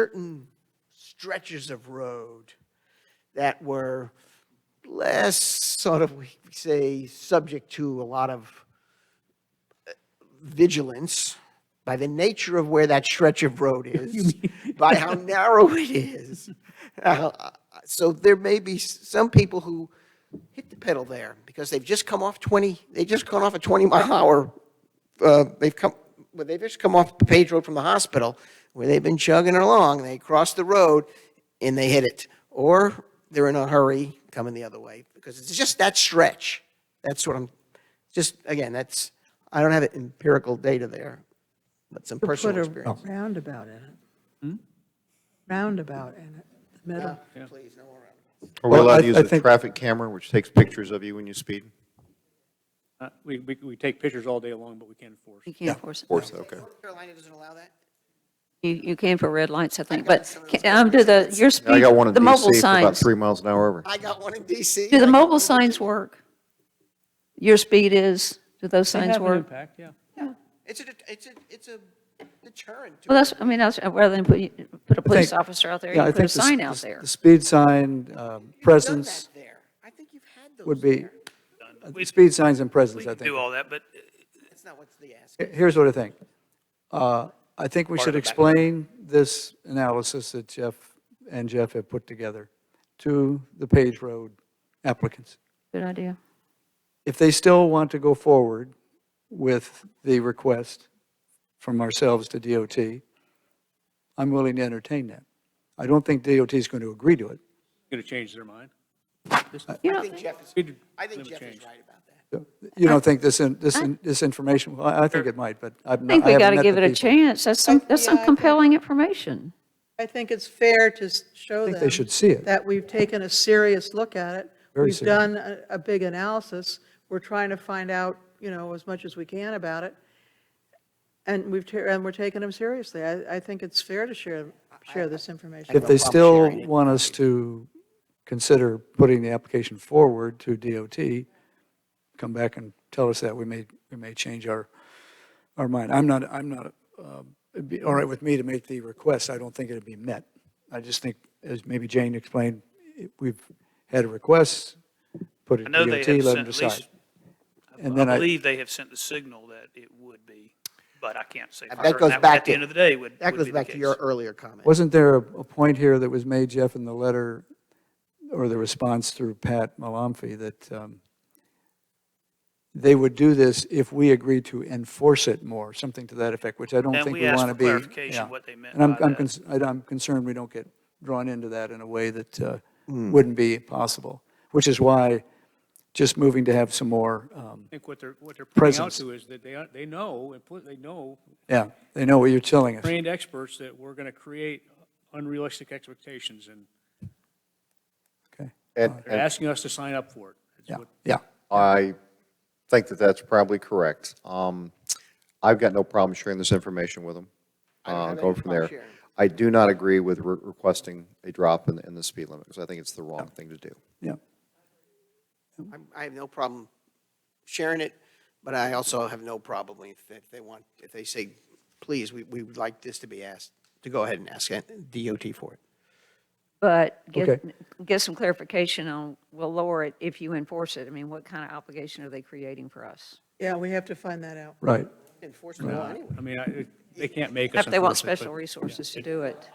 certain stretches of road that were less sort of, we could say, subject to a lot of uh, vigilance by the nature of where that stretch of road is, by how narrow it is. Uh, So there may be s- some people who hit the pedal there because they've just come off 20, they just gone off a 20 mile hour uh, they've come, well, they've just come off Page Road from the hospital, where they've been chugging along, they cross the road and they hit it. Or they're in a hurry coming the other way, because it's just that stretch. That's what I'm, just, again, that's, I don't have empirical data there, but some Put personal a experience. Oh. roundabout in it. Roundabout in it, the middle. Please, no more round. Are we Well, allowed I- to use I a think- traffic camera which takes pictures of you when you speed? Uh, We, we, we take pictures all day long, but we can't enforce. You can't force it. Or so, okay. North Carolina doesn't allow that? You, you can for red lights, I think, but ca- um, do the, your Now, I speed, got one in the mobile DC for about signs, three miles an hour over. I got one in DC. do the mobile signs work? Your speed is, do those They signs have an work? impact, yeah. It's a, det- it's a, it's a deterrent to Well, that's, I mean, that's, uh, rather than put, you- put a police think- officer out there, Yeah, I you put a think the s- sign the out s- there. The speed sign, uh, done presence that there. I think you've had those. would be, there. uh, speed signs and presence, We I can do think. all that, but That's not what's the ask. Here- Here's what I think. Uh, I think we should explain this analysis that Jeff and Jeff have put together to the Page Road applicants. Good idea. If they still want to go forward with the request from ourselves to DOT, I'm willing to entertain that. I don't think DOT is going to agree to it. Going to change their mind. You I know, think Jeff is, Speed I think limit Jeff is change. right about that. You don't think this, in- this, in- this information, well, I I think it might, but I've I not. think I we haven't got to met give the it a people. chance. That's some, that's some Yeah, I think- compelling information. I think it's fair to s- show think them. they should see it. That we've taken a serious look at it. Very We've serious. done a, a big analysis. We're trying to find out, you know, as much as we can about it. And we've, ta- and we're taking them seriously. I, I think it's fair to share, share this information. If they still want us to consider putting the application forward to DOT, come back and tell us that, we may, we may change our, our mind. I'm not, I'm not, um, it'd be all right with me to make the request, I don't think it'd be met. I just think, as maybe Jane explained, it- we've had a request, put it I to know they DOT, let them have sent, at decide. least, And I then I, believe they have sent the signal that it would be, but I can't say. That for certain. goes would, back At the to- end of the day, would, That would goes be the back to your case. earlier comment. wasn't there a a point here that was made, Jeff, in the letter, or the response through Pat Malamfi, that um, they would do this if we agreed to enforce it more, something to that effect, which I don't And think we we asked want to for be. clarification yeah. what they meant And I'm- by I'm that. cons- I- I'm concerned we don't get drawn into that in a way that uh, wouldn't be possible, which is why just moving to have some more, um, I think what they're, what they're pointing out Presence. to is that they, are- they know, and put- they know, yeah, they know what you're telling us. trained experts, that we're going to create unrealistic expectations, and Okay, And, they're and asking us to sign up for it. It's yeah, what- yeah. I think that that's probably correct. Um, I've got no problem sharing this information with them. Uh, have going any from problem there. sharing. I do not agree with re- requesting a drop in, in the speed limit because I think it's the wrong thing to do. Yeah, I'm- I have no problem sharing it, but I also have no problem if if they want, if they say, please, we we would like this to be asked, to go ahead and ask DOT for it. But get, Okay. get some clarification on, we'll lower it if you enforce it. I mean, what kind of obligation are they creating for us? Yeah, we have to find that out. right. Enforcement law anyway. I mean, I- it- they can't make us If they want enforce it, but- special resources to do it.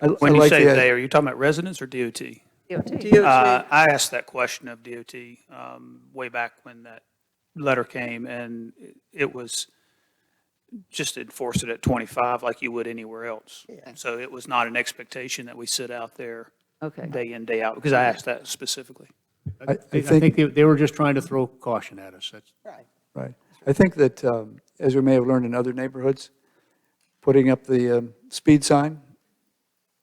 I- I When you like say the- they, are you talking about residents or DOT? DOT. Uh, I asked that question of DOT um, way back when that letter came, and it- it was just enforce it at 25 like you would anywhere else. So it was not an expectation that we sit out there Okay. day in, day out, because I asked that specifically. I- I I I think they- they were just trying to throw caution at us, that's. Right. I think that, um, as we may have learned in other neighborhoods, putting up the um, speed sign,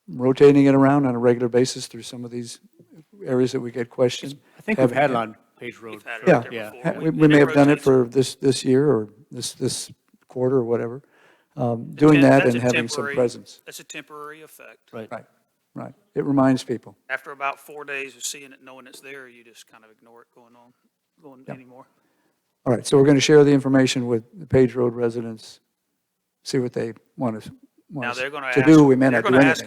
rotating it around on a regular basis through some of these areas that we get questioned. I think we've had it on Page Road. had it for- out there Yeah, before. ha- We- we and we may it have done it rotates. for this, this year or this, this quarter or whatever. Um, Doing that That's and a having some temporary- presence. That's a temporary effect. Right, right. It reminds people. After about four days of seeing it, knowing it's there, you just kind of ignore it going on, going anymore. All right, so we're going to share the information with the Page Road residents, see what they want us, want Now, us they're gonna to ask- do. We may they're not do gonna ask anything.